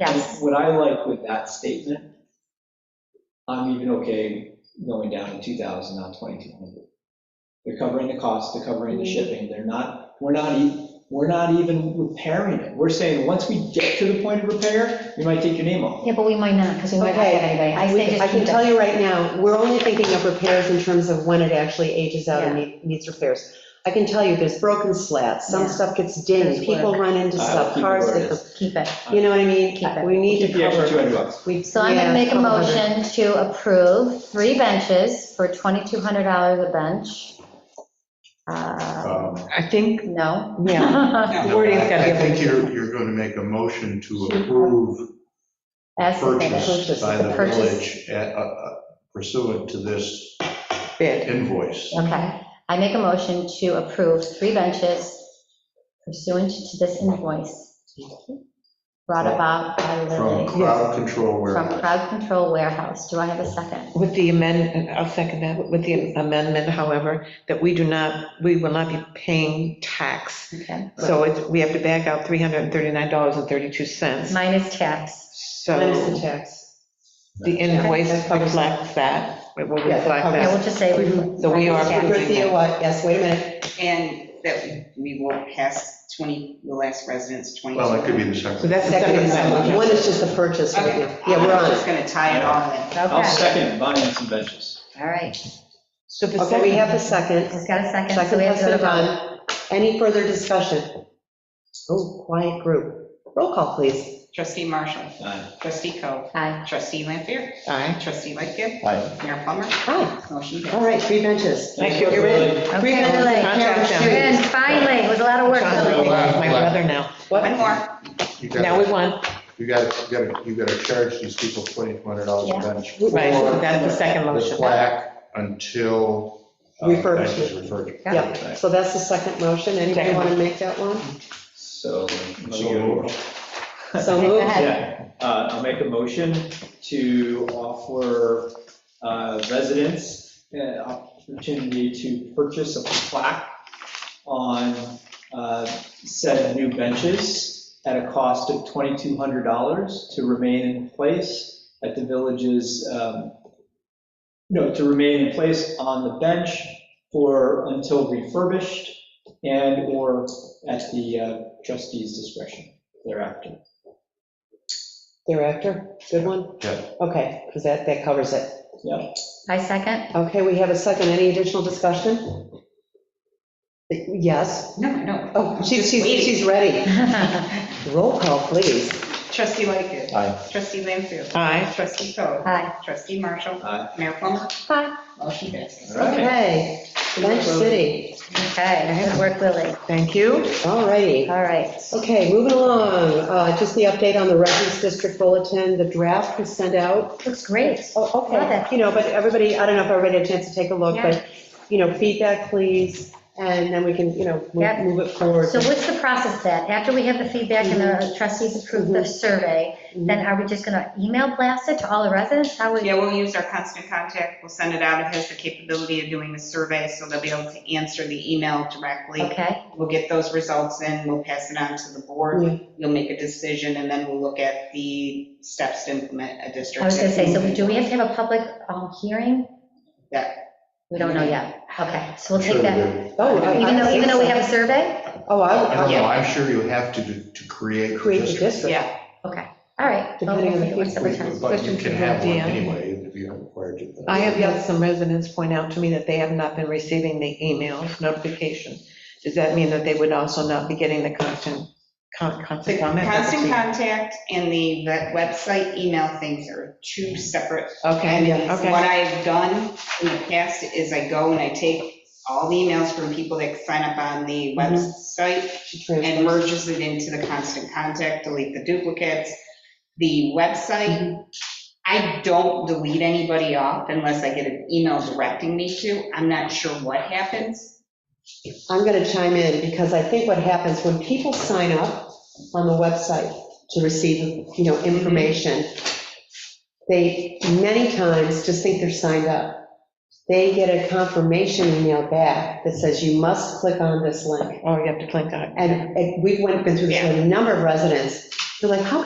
Yes. What I like with that statement, I'm even okay going down to 2,000, not 2,200. They're covering the cost, they're covering the shipping, they're not, we're not, e- we're not even repairing it. We're saying, once we get to the point of repair, you might take your name off. Yeah, but we might not, because we might not have Okay. anybody. I We- say I just can keep tell it. you right now, we're only thinking of repairs in terms of when it actually ages out and Yeah. need- needs repairs. I can tell you, there's broken slats, some Yeah. stuff gets There's dinged, work. people run into I'll stuff, keep it cars where it get, is. Keep it. you know what I mean? Keep it. We need Keep to the extra cover. 200 bucks. We- So I'm going yeah, to make a couple hundred. motion to approve three benches for $2,200 a bench. Uh, Um, I think, No? Yeah. The wording's gotta be I think updated. you're, you're going to make a motion to approve As submitted. purchase by the The purchase. village at- uh, uh, pursuant to this bid. invoice. Okay. I make a motion to approve three benches pursuant to this invoice brought about by From Lily crowd control from warehouse. Crowd Control Warehouse. Do I have a second? With the amendment, I'll second that, with the amendment, however, that we do not, we will not be paying tax. Okay. So it's, we have to back out $339.32. Minus tax. Minus the So tax. the invoice reflects that, it will Yeah, reflect I that. will just say. So we are Minus tax. approving Dorothea, that. what, yes, wait a minute, And that we won't pass 20, the last residents 22. Well, it could be the So second. that's the second second amendment, amendment. one is just the purchase right Okay. now, yeah, we're I'm on just it. going to tie it all in. I'll Okay. second buying some benches. All right. So the Okay, we have second, the second, Just got a second. so second we have has to go to been vote. done, any further discussion? Oh, quiet group, roll call, please. Trustee Marshall. Aye. Trustee Coe. Aye. Trustee Lampier. aye. Trustee Lightgift. Aye. Mayor Plummer. Hi, Motion all passed. right, three benches. Thank you. You're in. Really? Three Okay, benches, Lily. Carol Contract. Street. Good, finally. It was a lot of work. Sean's Lily. really like My brother now. One more. You Now we got, won, you got, you got, you got to charge these people $2,200 a bench. right, so that's the second for The motion. plaque until. uh, Refurbishment. benches refurbished. Yep, so that's the second motion, anybody Second. want to make that one? So. let me So go. moved. So Okay, go moved. ahead. Yeah, uh, I'll make a motion to offer uh, residents an opportunity to purchase a plaque on uh, said new benches at a cost of $2,200 to remain in place at the village's, um, no, to remain in place on the bench for, until refurbished and/or at the uh, trustee's discretion thereafter. Thereafter, good one? Yeah. Okay, because that, that covers it. I second. Okay, we have a second, any additional discussion? Yes, No, no. oh, she's, she's, she's ready. Roll call, please. Trustee Lightgift. Aye. Trustee Lampier. Aye, Trustee Coe. Aye. Trustee Marshall. Aye. Mayor Plummer. Aye. Motion passes. All right. Okay, Bench City, Okay, good work, Lily. thank you. all righty. All right. Oh, Okay, moving along, uh, just the update on the Records District Bulletin, the draft was sent out. Looks great. Oh, Love okay, it. you know, but everybody, I don't know if everybody had a chance to take a look, Yeah. but, you know, feedback, please, and then we can, you know, move- Yep. move it forward. So what's the process then? After we have the feedback and the trustees approve the survey, then are we just going to email blast it to all the residents? How would, Yeah, we'll use our constant contact. We'll send it out. It has the capability of doing the survey, so they'll be able to answer the email directly. okay, We'll get those results in, we'll pass it on to the Yeah. board, you'll make a decision, and then we'll look at the steps to implement a district. I was going to say, so do we have to have a public um, hearing? Yeah. We don't know yet. Okay, so we'll Sure take we that. do. Oh, I- I Even though, think even though we so. have a survey? Oh, I I don't would, know, I'm sure you have to, do- to create. the create the district. district. Yeah, All right. well, Depending on the we'll see feedback. what's return. But you Question can from have one Dan. anyway, if you're required to. I have had some residents point out to me that they have not been receiving the emails notification. Does that mean that they would also not be getting the constant, con- the constant comment? constant contact and the ve- website email things are two separate. Okay, And it's- okay. what I've done in the past is I go and I take all the emails from people that sign up Mm-hmm. on the website, and merges it into the constant contact, delete the duplicates. The Mm-hmm. website, I don't delete anybody off unless I get an email directing me to. I'm not sure what happens. I'm going to chime in, because I think what happens when people sign up on the website to receive, you know, information, they many times just think they're signed up. They get a confirmation email back that says, you must click on this link. Oh, you have to click on it. And and we've went, been through this with a number of residents, they're like, how